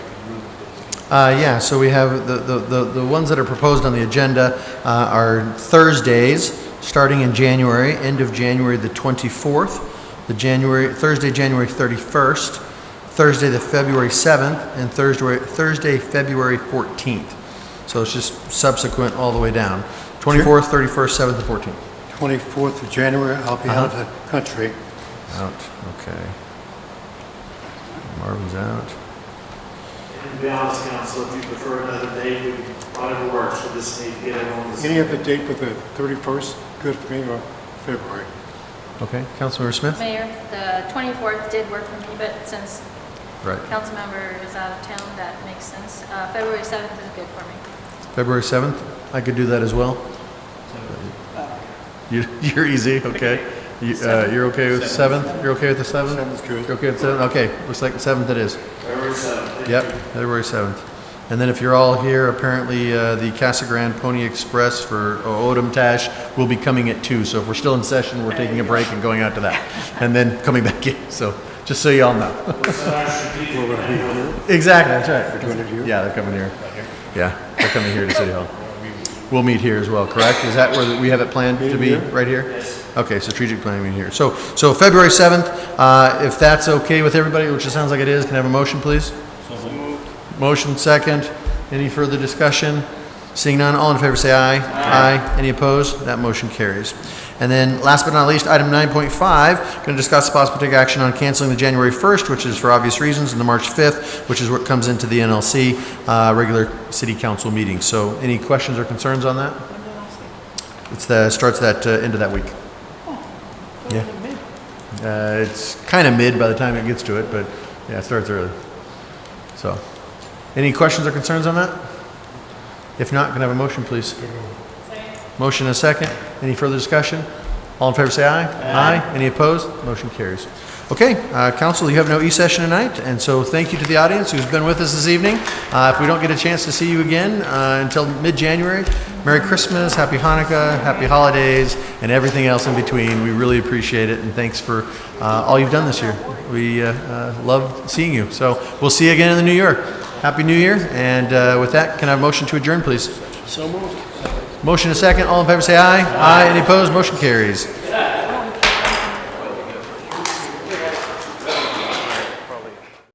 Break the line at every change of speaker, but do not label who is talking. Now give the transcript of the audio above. Uh, Yeah, so we have, the- the the the ones that are proposed on the agenda uh, are Thursdays, starting in January, end of January the 24th, the January, Thursday, January 31st, Thursday, the February 7th, and Thursday, Thursday, February 14th. So it's just subsequent all the way down, 24th, 31st, 7th, and 14th.
24th of January, I'll be out of the country.
Out, okay. Marvin's out.
And to be honest, council, if you prefer another date, we whatever works for this need to get everyone this.
Any other date but the 31st, good for me, or February?
Okay, Councilmember Smith?
Mayor, the 24th did work for me, but since
Right.
council member is out of town, that makes sense. Uh, February 7th is good for me.
February 7th, I could do that as well. You- You're easy, okay. You- uh, You're okay with 7th? You're okay with the 7th?
Seventh is good.
You're okay with 7th? Okay, looks like the 7th it is.
February seventh.
Yep, February 7th. And then if you're all here, apparently uh, the Casa Grande Pony Express for Odom Tash will be coming at 2. So if we're still in session, we're taking a break and going out to that. And then coming back in, so, just so you all know.
What's our strategic plan?
Exactly, that's right.
We're doing it here?
Yeah, they're coming here. Yeah, they're coming here to City Hall. We'll meet here as well, correct? Is that where we have it planned to be,
Meeting here?
right here? Okay, so strategic planning meeting here. So, so February 7th, uh, if that's okay with everybody, which it sounds like it is, can I have a motion, please? Motion second. Any further discussion? Seeing none, all in favor say aye. Aye. Any opposed? That motion carries. And then, last but not least, item 9.5, going to discuss possible take action on canceling the January 1st, which is for obvious reasons, and the March 5th, which is what comes into the NLC uh, regular city council meeting. So any questions or concerns on that? It's the, starts that, uh, end of that week. Yeah. Uh, It's kind of mid by the time it gets to it, but yeah, it starts early. So, any questions or concerns on that? If not, can I have a motion, please? Motion and a second. Any further discussion? All in favor, say aye. Aye. Any opposed? Motion carries. Okay, uh, council, you have no e-session tonight, and so thank you to the audience who's been with us this evening. Uh, If we don't get a chance to see you again uh, until mid-January, Merry Christmas, Happy Hanukkah, Happy Holidays, and everything else in between. We really appreciate it, and thanks for uh, all you've done this year. We uh, uh, love seeing you. So we'll see you again in the new year. Happy New Year, and uh, with that, can I have a motion to adjourn, please? Motion a second, all in favor say aye. Aye. Any opposed, motion carries.